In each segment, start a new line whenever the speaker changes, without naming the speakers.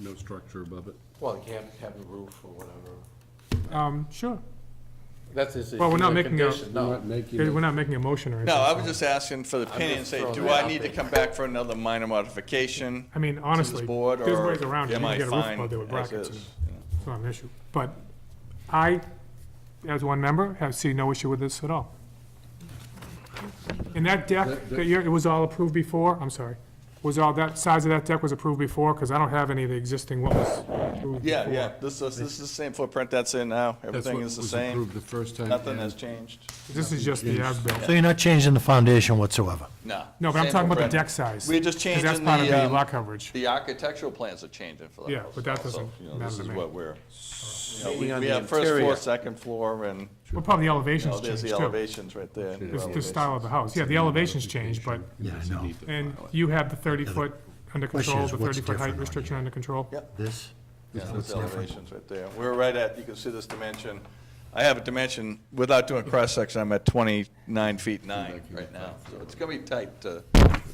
no structure above it.
Well, you can't have a roof or whatever.
Um, sure.
That's his.
Well, we're not making a-
condition, No,
Okay, We're not making a motion or anything.
No, I was just asking for the opinion, say,
throwing
do
that
I
out
need to
there.
come back for another minor modification?
I mean, honestly,
board,
there's
or
ways around it. You
am
can
I
get a roof
fine
above there with
as
brackets.
is?
and It's not an issue. But I, as one member, have seen no issue with this at all. And that deck,
That- that-
that you're- it was all approved before, I'm sorry, was all, that size of that deck was approved before? Because I don't have any of the existing what was approved before.
Yeah, yeah, this, this this is the same footprint that's in now, everything is the same,
The first time.
nothing has changed,
This is just the as-built.
So you're not changing the foundation whatsoever?
no.
No, but I'm
same
talking about the
footprint.
deck size.
We're just
'cause
changing
that's part of
the,
the
um,
lot coverage.
The architectural plans are changing for that.
Yeah,
house
but that
also,
doesn't
you know,
matter
This
to
is
me.
what we're, you know,
Being
we-
on
we
the
have first floor,
interior.
second floor, and,
Well, probably the
you know,
elevations
there's
changed
the
too.
elevations right there. and
It's the
elevations.
style of the house. Yeah, the elevations changed, but
Yeah, I know.
And you have the 30-foot under
question
control,
is
the
what's
30-foot height
different on
restriction
here?
under control?
Yep.
This?
Yeah,
Is
those
what's different?
elevations right there. We're right at, you can see this dimension. I have a dimension, without doing cross-section, I'm at 29 feet 9 right now. So it's going to be tight to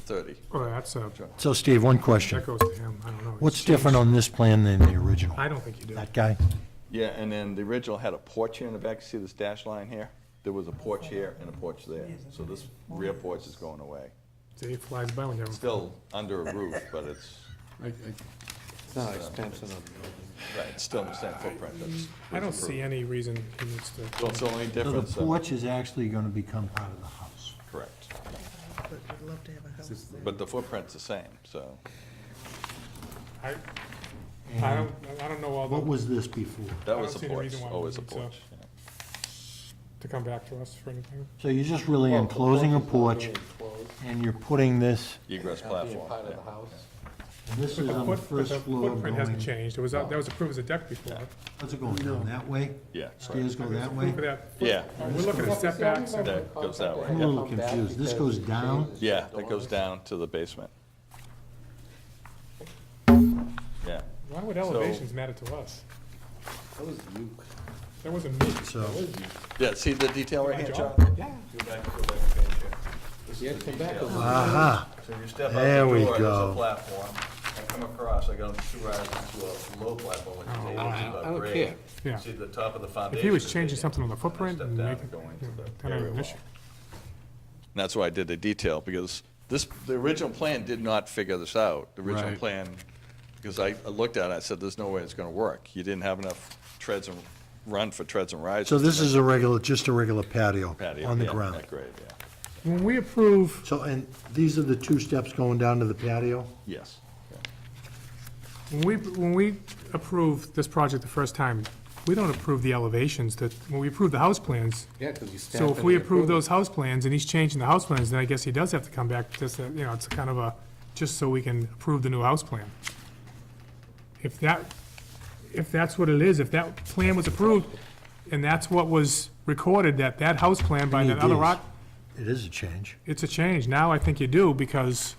30.
Well, Oh, that's a,
So Steve, one question.
that goes to him, I don't know.
What's different on this plan than the original?
I don't think you do.
That guy?
Yeah, and then the original had a porch here in the back. See this dash line here? There was a porch here and a porch there. So this rear porch is going away.
See, It flies by when you have a
Still under a roof, but it's,
it's not expensive. of the
right, it's still the same footprint. That's-
I don't see any reason he needs to,
So it's the only
So the
difference. uh,
porch is actually going to become part of the house.
Correct.
But we'd love to have a house there.
But the footprint's the same, so.
I, I don't, I don't know all
What
the,
was this before?
That
I
was
don't
a
see any
porch,
reason why we
always a
need to-
porch. yeah.
to come back to us for anything.
So you're just really enclosing a porch and you're putting this,
Egress
Being
platform.
part of
yeah.
the house.
this
But
is
the
on the
foot- but
first
the
floor
footprint hasn't
going.
changed, it was, out- that was approved as a deck before.
How's it going down that way?
Yeah.
Stairs go that way?
Look at that.
Yeah,
We're looking at setbacks, and-
that goes that
I'm
way.
a little confused. This goes down?
Yeah, that goes down to the basement. Yeah,
why would elevations matter to us? That was That wasn't me.
So,
yeah, see the detail right here, John?
Yeah.
Yeah, come back a little.
aha,
So if you step
There
out
we
the door, there's
go.
a platform, and come across, I got two rises to a low platform,
Oh,
which is eight
I don't
inches above grade.
care.
Yeah.
See the top of the foundation.
If he was
is
changing
eight
something on the
inches, and
footprint,
then
and
step
make
down,
it,
go into the
then I
area
have an
wall.
issue.
And That's why I did the detail, because this, the original plan did not figure this out. The original
Right.
plan, because I I looked at it, I said, there's no way it's gonna work. You didn't have enough treads and, run for treads and rises.
so
to
this
make
is a regular, just a regular patio
patio,
on the
yeah,
ground.
That grade, yeah.
When we approve
So, and these are the two steps going down to the patio?
Yes.
When we, when we approve this project the first time, we don't approve the elevations that, when we approve the house plans.
Yeah, 'cause you stamp
So if
it
we
and
approve
approve it.
those house plans and he's changing the house plans, then I guess he does have to come back, just, uh, you know, it's kind of a, just so we can approve the new house plan. If that, if that's what it is, if that plan was approved and that's what was recorded, that, that house plan by
It
that other
is.
rock,
It is a change.
it's a change. Now I think you do because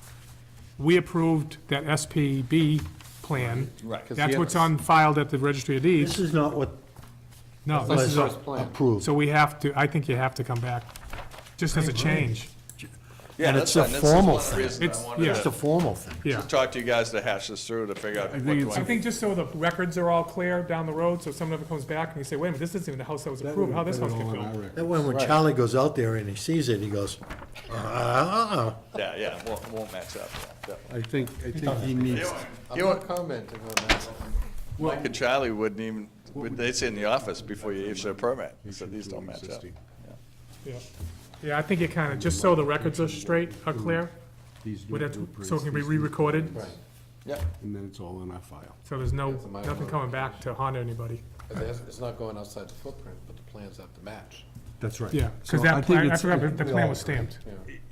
we approved that SPB plan.
Right. 'cause
That's
the
what's
others-
on filed at the registry of
This
deeds.
is not what
No,
This
this
is
is,
our
was
plan.
approved.
so we have to, I think you have to come back, just as a change.
Yeah,
And
that's
it's a
fine. This is one
formal
of the
thing.
reasons
It's-
I wanted
yeah.
It's a
to
formal thing.
Yeah.
talk to you guys to hash this through, to figure out what do
I
I,
think just so the records are all clear down the road, so if someone ever comes back and you say, wait a minute, this isn't even the house that was approved, how this house get built?
That way, when Charlie goes out there and he sees it, he goes, uh, uh,
yeah, yeah, it won't, won't match up. yeah, definitely.
I think, I think he needs,
I'm not commenting on that one.
Mike and Charlie wouldn't even, would- they'd say in the office before you issue a permit, he said, these don't match up.
Yeah. Yeah, I think you kind of, just so the records are straight, are clear,
these new
would have to-
blueprints.
so it can be
these new
re-recorded,
plans,
Yeah,
And then it's all in our file.
so there's no,
a minor
nothing coming back to haunt anybody.
'Cause it has- It's not going outside the footprint, but the plans have to match.
That's right.
Yeah,
So
because
I
that,
think
plan- I
it's-
forgot, that the plan was stamped.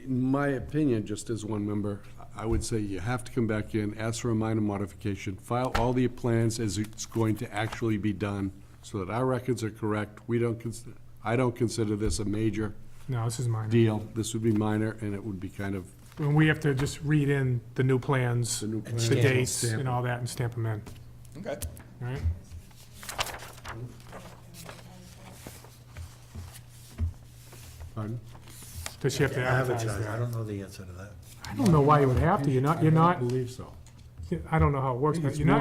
In my opinion, just as one member, I would say you have to come back in, ask for a minor modification, file all the plans as it's going to actually be done, so that our records are correct. We don't consider, I don't consider this a major
No, this is mine.
deal. This would be minor, and it would be kind of,
And we have to just read in the new plans,
new plans.
the dates
Stamp
and
it.
all that and stamp them in,
okay.
all right?
pardon?
Does she have to advertise
advertise. I
that?
don't know the answer to that.
I don't know why you would have to, you're not, you're
I
not,
don't believe so.
I don't know how it works, but
It's
you're not
more